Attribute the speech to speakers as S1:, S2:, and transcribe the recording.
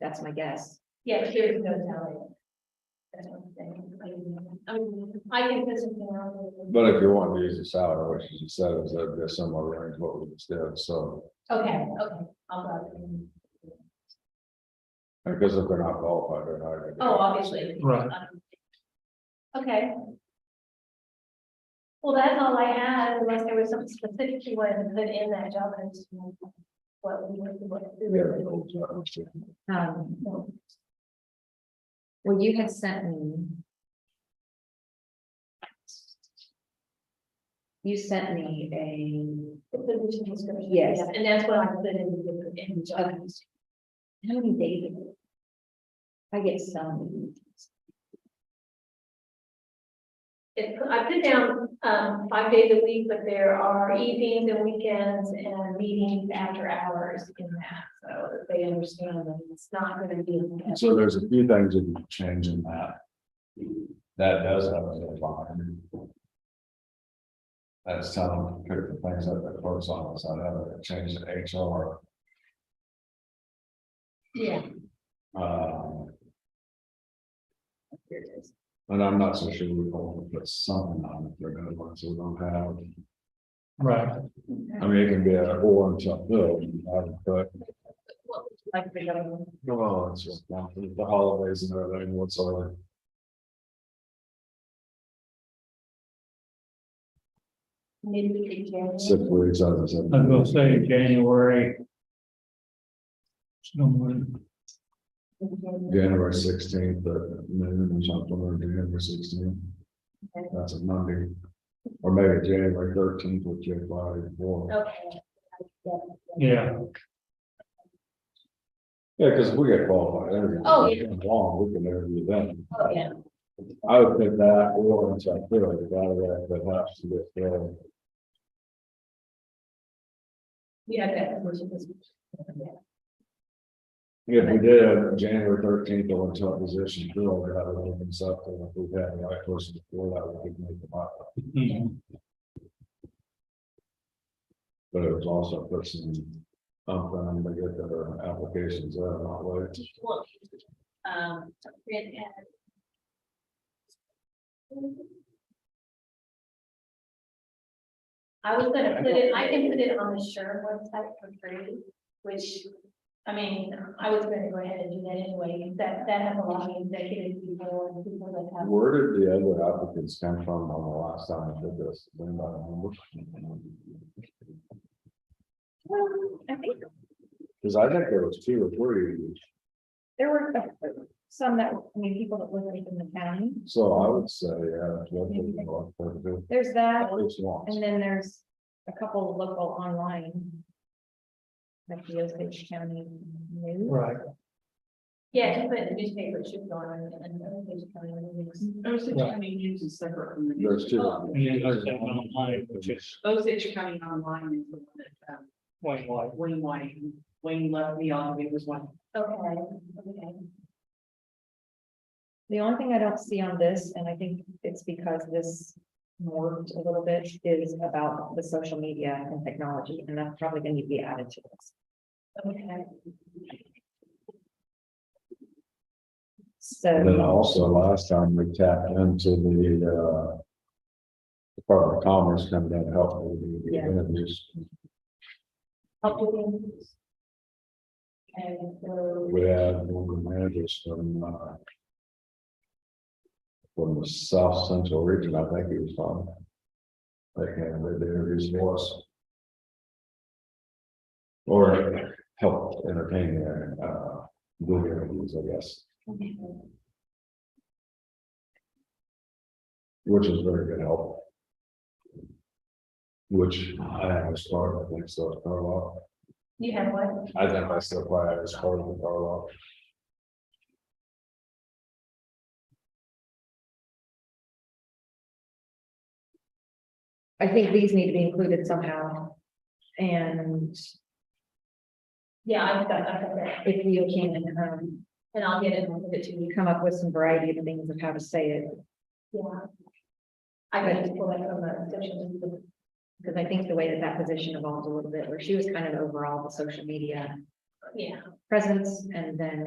S1: That's my guess.
S2: Yeah, here's no telling. That's what I'm saying. I mean, I can put something on.
S3: But if you want to use the salary, which you said is that there's some range what we just did, so,
S2: Okay, okay, I'll go.
S3: because if they're not qualified, they're not. gonna get it.
S2: Oh, obviously.
S4: Right.
S2: Um, Okay. Well, that's all I had, unless there was something specific you wanted to put in that job and what we would, what.
S3: We have an old job, so.
S1: Um, well, you had sent me. You sent me a,
S2: The position description.
S1: Yes.
S2: And that's what I put in, the- in the job.
S1: Okay. how many days? ago? I get some.
S2: It, I put down, um, five days a week, but there are evenings and weekends and meetings after hours in that, so that they understand that it's not gonna be.
S3: So there's a few things that you can change in that. That does have a deadline. That's telling, pick the things that the clerk's office, I know, change the HR,
S2: Yeah,
S3: um. And I'm not so sure we're going to put something on it, they're gonna want to, we don't have,
S4: Right,
S3: I mean, it can be a or until bill, but.
S2: what would you like the government?
S3: Well, it's just, not the holidays and everything whatsoever.
S2: Maybe January.
S3: Six weeks, I was.
S4: I was gonna say January. It's no more than-
S3: January sixteenth, the noon or something, or January sixteenth.
S2: Okay.
S3: That's a Monday, or maybe January thirteenth, which is Friday before.
S2: Okay.
S4: Yeah,
S3: Yeah, because we get qualified. every-
S2: Oh, yeah.
S3: Long, we can interview them.
S2: Oh, yeah,
S3: I would think that, or once I feel like that, that helps to get there.
S2: we have that. conversion this week.
S3: If we did a January thirteenth, or until position, bill, we had a little bit up, and if we had the right person before that, we could make the mark.
S4: mhm,
S3: But it was also a person, um, to get their applications, uh, not late.
S2: Do you want me to, um, print and- I was gonna put it, I can put it on the Sure website for free, which, I mean, I was gonna go ahead and do that anyway, that, that has a lot of executive people and people that have.
S3: Where did the other applicants come from on the last time I did this? Does anybody remember?
S1: I think
S3: Cause I think there was two or three,
S1: there were some that, I mean, people that live in the county.
S3: so I would say, uh, twelve to the north, but the-
S1: There's that,
S3: at least once.
S1: and then there's a couple of local online. Like the Osage County News.
S4: right.
S2: Yeah, to put in the newspaper, it should go on and then they should come in and mix.
S5: Osage
S4: Right.
S5: County News is separate from the.
S3: There's
S5: news.
S3: two.
S4: And then there's that one online, which is
S5: Osage County Online is the one that, um,
S4: Wayne White.
S5: Wayne White, Wayne left me on, it was one.
S2: Okay, okay.
S1: The only thing I don't see on this, and I think it's because this morphed a little bit, is about the social media and technology, and that's probably gonna be added to this.
S2: Okay.
S3: And then
S1: So,
S3: also last time we tapped into the, uh, Department of Commerce coming in and helping with the
S1: Yeah.
S3: interviews.
S2: Helping. And so.
S3: We had one of the managers from, uh, from the South Central Region, I think he was from. They came, and did the interviews for us. Or helped entertain their, uh, do the interviews, I guess, which was very good help. Which I have started, I think, so, Carlisle.
S2: You have one?
S3: I think I still play, I was part of the Carlisle.
S1: I think these need to be included somehow. And
S2: Yeah, I've got, I've got that,
S1: if you can, um,
S2: and I'll get it, I'll give it to you,
S1: come up with some variety of things of how to say it,
S2: yeah. I can just pull that from the social media.
S1: because I think the way that that position evolved a little bit, where she was kind of overall the social media
S2: yeah.
S1: presence, and then